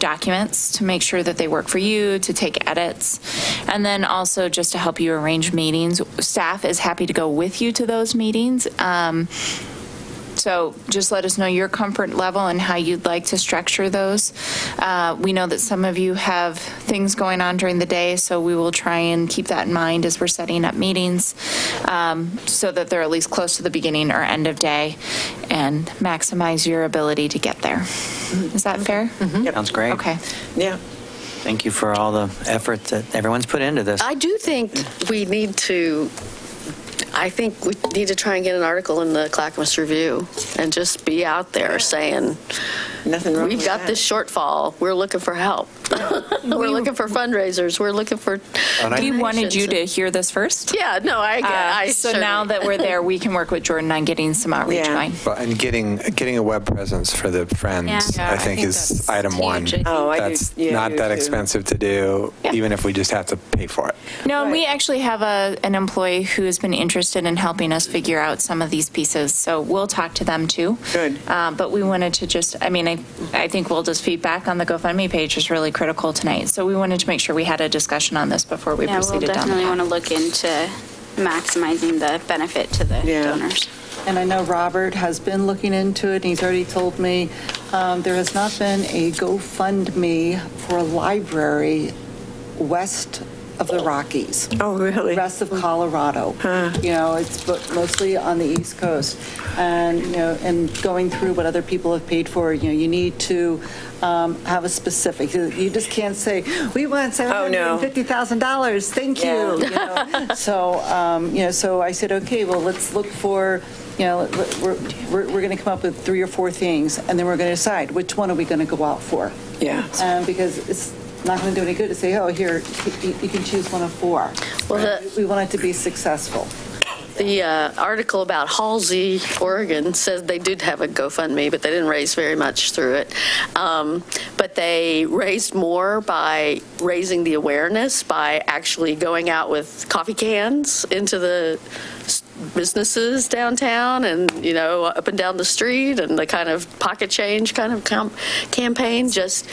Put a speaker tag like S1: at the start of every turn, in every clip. S1: documents to make sure that they work for you, to take edits, and then also just to help you arrange meetings. Staff is happy to go with you to those meetings. Um, So just let us know your comfort level and how you'd like to structure those. Uh, We know that some of you have things going on during the day, so we will try and keep that in mind as we're setting up meetings, um, so that they're at least close to the beginning or end of day, and maximize your ability to get there. Is that fair?
S2: Sounds great.
S1: Okay.
S3: Yeah.
S2: Thank you for all the effort that everyone's put into this.
S4: I do think we need to, I think we need to try and get an article in the Clackamas Review and just be out there saying,
S3: Nothing wrong
S4: we've
S3: with
S4: got
S3: that.
S4: this shortfall, we're looking for help. We're looking for fundraisers, we're looking for
S1: We wanted you
S4: donations."
S1: to hear this first.
S4: Yeah, no, I, get- I
S1: Uh, So now
S4: certainly-
S1: that we're there, we can work with Jordan on getting some outreach
S3: Yeah.
S1: going.
S5: Well, and getting, getting a web presence for the friends,
S1: Yeah.
S5: I think
S1: Yeah, I think
S5: is item
S1: that's
S5: one.
S1: huge, I think.
S3: Oh, I do-
S5: That's
S3: yeah, I
S5: not
S3: do
S5: that
S3: too.
S5: expensive to do,
S1: Yeah.
S5: even if we just have to pay for it.
S1: No, and we
S3: Right.
S1: actually have a, an employee who has been interested in helping us figure out some of these pieces, so we'll talk to them too.
S3: Good.
S1: Uh, But we wanted to just, I mean, I, I think Wilda's feedback on the GoFundMe page was really critical tonight, so we wanted to make sure we had a discussion on this before we
S6: Yeah, we'll
S1: proceeded down the
S6: definitely
S1: path.
S6: want to look into maximizing the benefit to the
S3: Yeah.
S6: donors.
S7: And I know Robert has been looking into it, and he's already told me um, there has not been a GoFundMe for a library west of the Rockies,
S3: Oh, really?
S7: west of Colorado. You know, it's bo- mostly on the East Coast. And, you know, and going through what other people have paid for, you know, you need to um, have a specific, you you just can't say, we want
S3: Oh, no.
S7: $750,000, thank
S3: Yeah.
S7: you. you know. So, um, you know, so I said, okay, well, let's look for, you know, let- we're, we're, we're going to come up with three or four things, and then we're going to decide which one are we going to go out for?
S3: Yeah.
S7: Um, Because it's not going to do any good to say, oh, here, you you can choose one of four.
S4: Well, the-
S7: We want it to be successful.
S4: The uh, article about Halsey, Oregon, says they did have a GoFundMe, but they didn't raise very much through it. Um, But they raised more by raising the awareness, by actually going out with coffee cans into the s- businesses downtown and, you know, up and down the street, and the kind of pocket change kind of com- campaign, just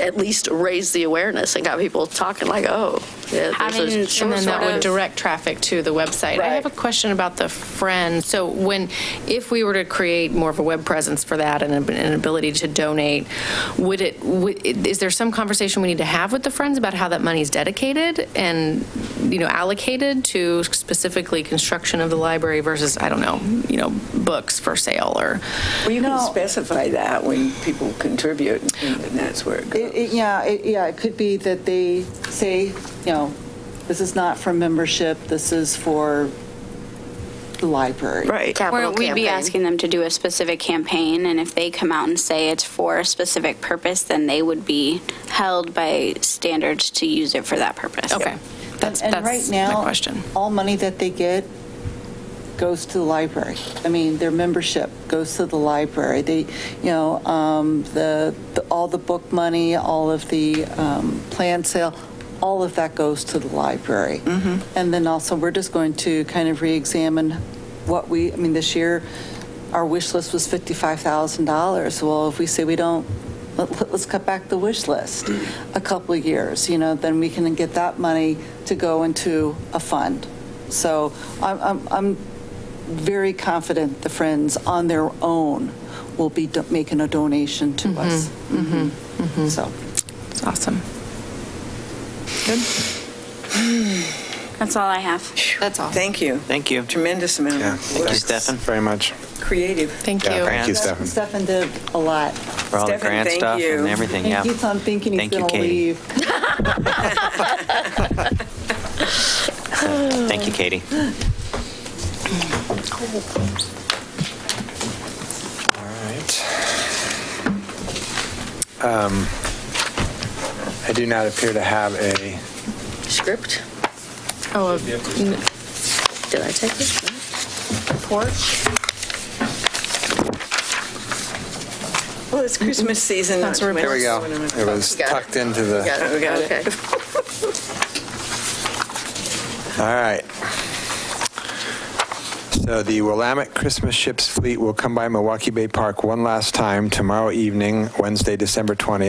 S4: at least raise the awareness and got people talking like, oh, yeah, there's a
S8: Having-
S4: short
S8: And then that
S4: sort
S8: would
S4: of-
S8: direct traffic to the website. I have a
S4: Right.
S8: question about the friends. So when, if we were to create more of a web presence for that and an ability to donate, would it, would- is there some conversation we need to have with the friends about how that money is dedicated and, you know, allocated to specifically construction of the library versus, I don't know, you know, books for sale or?
S3: Well, you can
S7: No.
S3: specify that when people contribute, and that's where it goes.
S7: It- it- Yeah, it- yeah, it could be that they say, you know, this is not for membership, this is for the library.
S3: Right.
S6: Or
S4: Capital
S6: we'd be
S4: campaign.
S6: asking them to do a specific campaign, and if they come out and say it's for a specific purpose, then they would be held by standards to use it for that purpose.
S8: Okay, that's,
S7: And- and
S8: that's
S7: right now,
S8: my question.
S7: All money that they get goes to the library. I mean, their membership goes to the library. They, you know, um, the, the- all the book money, all of the um, plan sale, all of that goes to the library. And then also, we're just going to kind of reexamine what we, I mean, this year, our wish list was $55,000. Well, if we say we don't, let- let- let's cut back the wish list a couple of years, you know, then we can get that money to go into a fund. So I'm, I'm, I'm very confident the Friends on their own will be do- making a donation to us. Mm-hmm. So.
S8: It's awesome.
S6: That's all I have.
S8: That's all.
S3: Thank you.
S2: Thank you.
S3: Tremendous amount
S5: Yeah.
S3: of work.
S2: Thank you, Stefan,
S5: Very much.
S3: Creative.
S8: Thank you.
S5: Yeah, thank you,
S2: Grants.
S5: Stefan.
S7: Stefan did a lot.
S2: for all the
S3: Stefan,
S2: grant
S3: thank
S2: stuff
S3: you.
S2: and everything,
S7: He
S2: yeah.
S7: keeps on thinking he's
S2: Thank you,
S7: going to
S2: Katie.
S7: leave.
S2: Thank you, Katie. All
S5: right. Um, I do not appear to have a,
S4: Script?
S8: Oh, n-
S4: Did I take it?
S3: Well, it's Christmas season.
S8: That's where-
S5: here we go. It was
S4: Got it.
S5: tucked into
S4: We got
S5: the,
S4: it, we got it.
S5: all right. So the Willamette Christmas Ships Fleet will come by Milwaukee Bay Park one last time tomorrow evening, Wednesday, December 20th,